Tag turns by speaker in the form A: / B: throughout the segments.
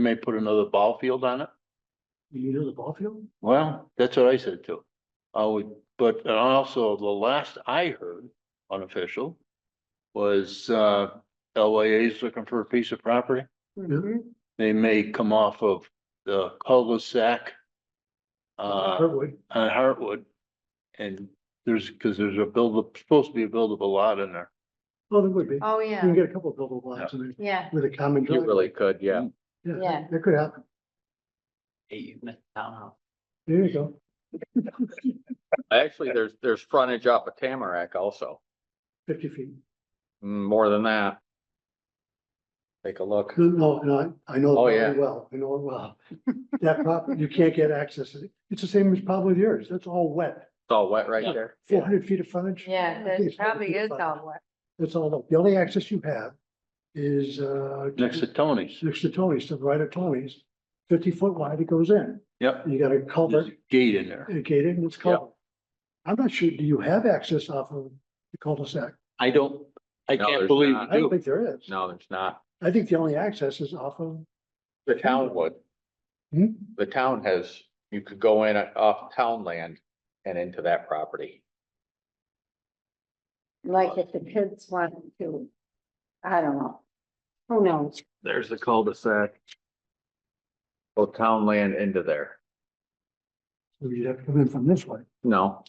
A: may put another ball field on it.
B: You know the ball field?
A: Well, that's what I said too. I would, but also the last I heard unofficial was uh LYA's looking for a piece of property. They may come off of the cul-de-sac uh
B: Hardwood.
A: on Hartwood. And there's, because there's a build, supposed to be a buildable lot in there.
B: Oh, there would be. You
C: Oh,
B: can
C: yeah,
B: get a couple of buildable lots in there
C: yeah,
B: with a common
D: You
B: driveway.
D: really Mm. could, yeah.
C: yeah.
B: That could happen. There you go.
D: Actually, there's, there's frontage off of Tamarack also,
B: Fifty feet.
D: Mm, more than that. Take a look.
B: No, no, I, I know. it
D: Oh,
B: very
D: yeah.
B: Well, I know it well. That property, you can't get access. to it. It's the same as probably yours. That's all wet.
D: It's all wet
B: Yeah.
D: right there.
B: Four hundred feet of frontage.
C: yeah,
B: I think
C: that
B: it's 400
C: probably
B: feet of
C: is
B: frontage.
C: all wet.
B: That's all. The only access you have is, uh.
A: Next to Tony's.
B: Next to Tony's, to the right of Tony's, fifty foot wide, it goes in.
A: Yep.
B: You got a culvert
A: There's a gate in there.
B: and gated and it's culvert. I'm not sure, do you have access off of the cul-de-sac?
A: I don't, I
D: No,
A: can't
D: there's
A: believe
D: not.
B: I
A: you
B: don't
A: do.
B: think there is.
D: No, there's not.
B: I think the only access is off of,
D: The town would,
B: hmm,
D: the town has, you could go in uh, off town land and into that property.
C: Like if the kids want to, I don't know. Who knows?
D: There's the cul-de-sac. Go Oh, town land into there.
B: so you'd have to come in from this way.
D: No,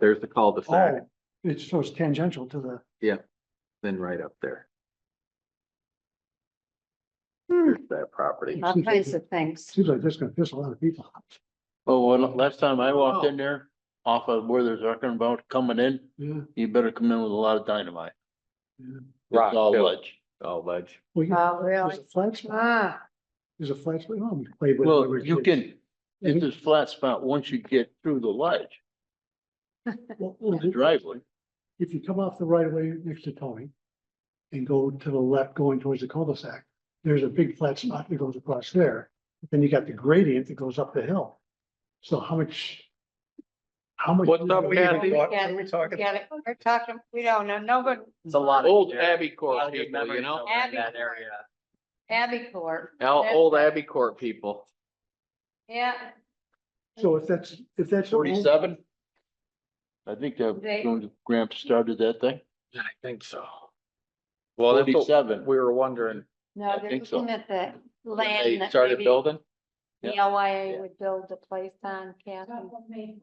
D: there's the cul-de-sac,
B: Oh, it's, so it's tangential to the,
D: then right up there,
C: Hmm,
D: there's that property.
C: All kinds of things.
B: seems like that's gonna piss a lot of people off.
A: Well, when, last time I walked in there, off of where they're talking about coming in,
B: Yeah,
A: you better come in with a lot of dynamite.
B: yeah.
D: Rock,
A: It's all
D: too.
A: ledge.
D: All ledge.
B: Well, you-
C: Oh,
B: there's
C: really?
B: a flat spot,
C: Ah,
B: there's a flat spot. Oh, we played with it when we
A: Well,
B: were
A: you
B: kids.
A: can, it's this flat spot once you get through the ledge,
B: Well, well,
A: the driveway.
B: if you come off the right of way next to Tony and go to the left going towards the cul-de-sac, there's a big flat spot that goes across there. Then you got the gradient that goes up the hill. So how much? How much?
D: What's up, Kathy?
C: What are we talking? Get it, we're talking, we don't know, nobody,
E: It's a lot of.
D: Old
E: dirt.
D: Abbey Court
E: Lot of
D: people, you
E: memories
D: know,
E: over in
C: Abbey
E: That
C: Court.
E: area.
C: Abbey Court,
D: Al- old Abbey Court people.
C: yeah.
B: So if that's, if that's.
A: Forty-seven? I think
C: They-
A: that Gramp started that thing.
D: I think so. Well, that's what
A: 47.
D: we were wondering,
C: No,
A: I
C: they're
A: think so.
C: looking at the
D: when
C: land
D: they
C: that
D: started
C: maybe the
D: building,
C: LYA would build a place on, Kathy.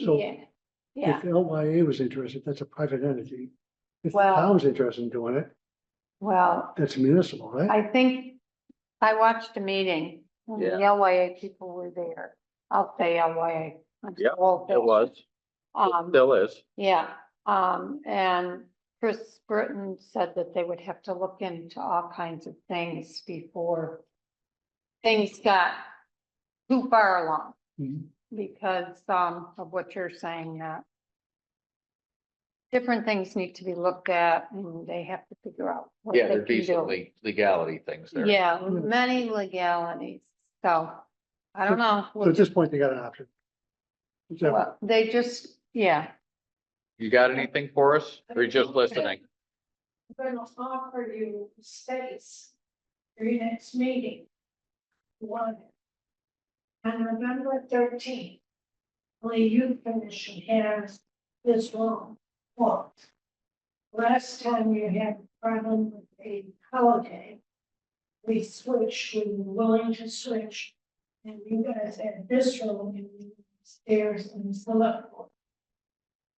B: So
C: Yeah, yeah,
B: if LYA was interested, that's a private entity. If the
C: Well-
B: town's interested in doing it,
C: well.
B: that's municipal, right?
C: I think I watched a meeting. and The LYA people were there. I'll say LYA. I'm
D: Yeah,
C: old
D: it
C: now.
D: was, it
C: Um,
D: still is.
C: yeah, um, and Chris Britton said that they would have to look into all kinds of things before things got too far along
B: Mhm.
C: because, um, of what you're saying that different things need to be looked at and they have to figure out what they
D: Yeah,
C: can do.
D: there's decently legality things there.
C: Yeah,
B: Mm.
C: many legalities, so I don't know.
B: So at this point, they got an option. Is that-
C: Well, They just, yeah.
D: You got anything for us? Or you just listening?
F: I'm gonna offer you space for your next meeting. One. On November thirteenth, only you commission has this long walk. Last time you had a problem with a holiday. We switched, we were willing to switch, and you guys had this room and you stairs and select board.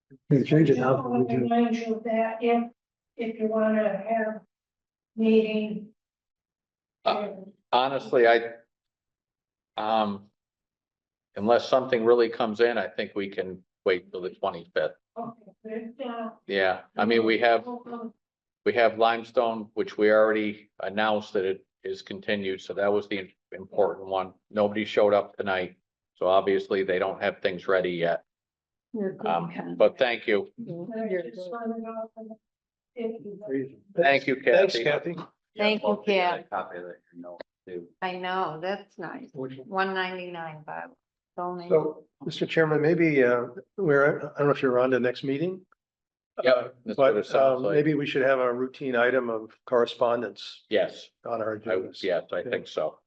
B: You can change it
F: I
B: now.
F: just wanna Remind you of that if, if you wanna have meeting.
D: Uh,
F: and
D: Honestly, I, um, unless something really comes in, I think we can wait till the twenty-fifth.
F: okay, but if not,
D: Yeah, I mean, we have,
F: we'll go
D: we have limestone, which we already announced that it is continued, so that was the important one. Nobody showed up tonight, so obviously they don't have things ready yet.
C: you're good,
D: Um,
C: Ken.
D: but thank you.
F: there,
C: You're
F: just
C: good.
F: wanna know If you.
D: Thank you,
E: Thanks,
D: Kathy.
E: Kathy.
C: Thank you, Ken.
E: Copy of that, you know, too.
C: I know, that's nice. One ninety-nine, Bob. It's only-
E: So, Mr. Chairman, maybe, uh, we're, I don't know if you're on to next meeting. uh,
D: Yep. that's what it
E: But,
D: sounds
E: um,
D: like.
E: maybe we should have a routine item of correspondence
D: Yes,
E: on our
D: I,
E: agenda.
D: yes, I think so.